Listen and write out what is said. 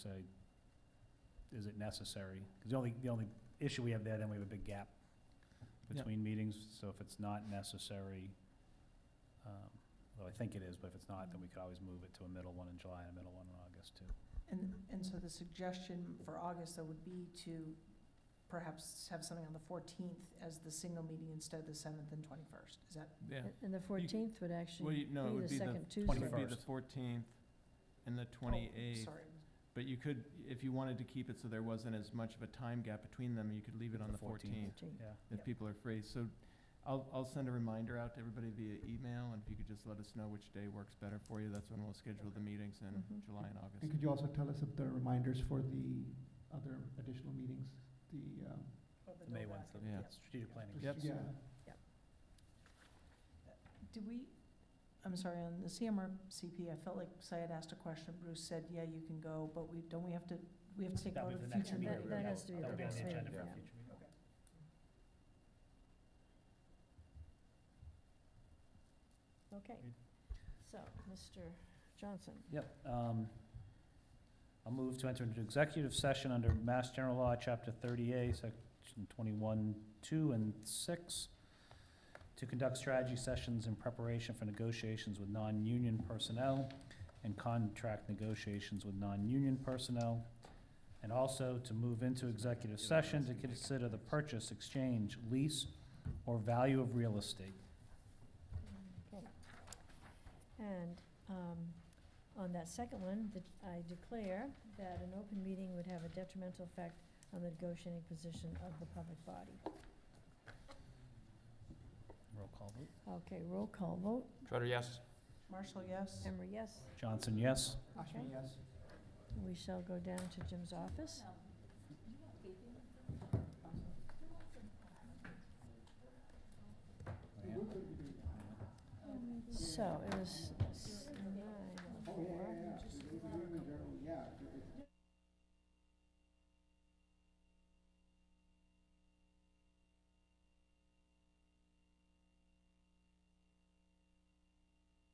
say, is it necessary? Because the only, the only issue we have there, then we have a big gap between meetings, so if it's not necessary, um, well, I think it is, but if it's not, then we could always move it to a middle one in July and a middle one in August, too. And, and so the suggestion for August, though, would be to perhaps have something on the 14th as the single meeting instead of the 7th and 21st. Is that, Yeah. And the 14th would Well, actually you- be no, it would the be the, second it would be Tuesday. the 21st. fourteenth and the oh, twenty-eighth. sorry. But you could, if you wanted to keep it so there wasn't as much of a time gap between them, you could leave it on The the 14th. fourteenth 14th. Yeah. if Yep. people are free. So I'll, I'll send a reminder out to everybody via email, and if you could just let us know which day works better for you, that's when we'll schedule the meetings in Mhm. July and August. And could you also tell us if there are reminders for the other additional meetings, the, um, The May one, so Yeah. strategic planning. Yep. yeah, Do we, I'm sorry, on the CMRCP, I felt like Syed asked a question, Bruce said, yeah, you can go, but we, don't we have to, we have to take That'll out be a the next future Yeah, meeting. that- meeting? that has to be That'll the next on the meeting, agenda for a yeah. future meeting. Okay. Agreed. So, Mr. Johnson, Yep. um, I'll move to enter into executive session under Mass General Law, Chapter 30A, Section 21, 2, and 6, to conduct strategy sessions in preparation for negotiations with non-union personnel and contract negotiations with non-union personnel, and also to move into executive session to consider the purchase, exchange, lease, or value of real estate. okay. And um, on that second one, that I declare that an open meeting would have a detrimental effect on the negotiating position of the public body. Roll call vote. Okay, roll call vote. Trotter, yes. Marshall, yes? Emery, yes. Johnson, yes? Ashby, Okay. yes. We shall go down to Jim's office. oh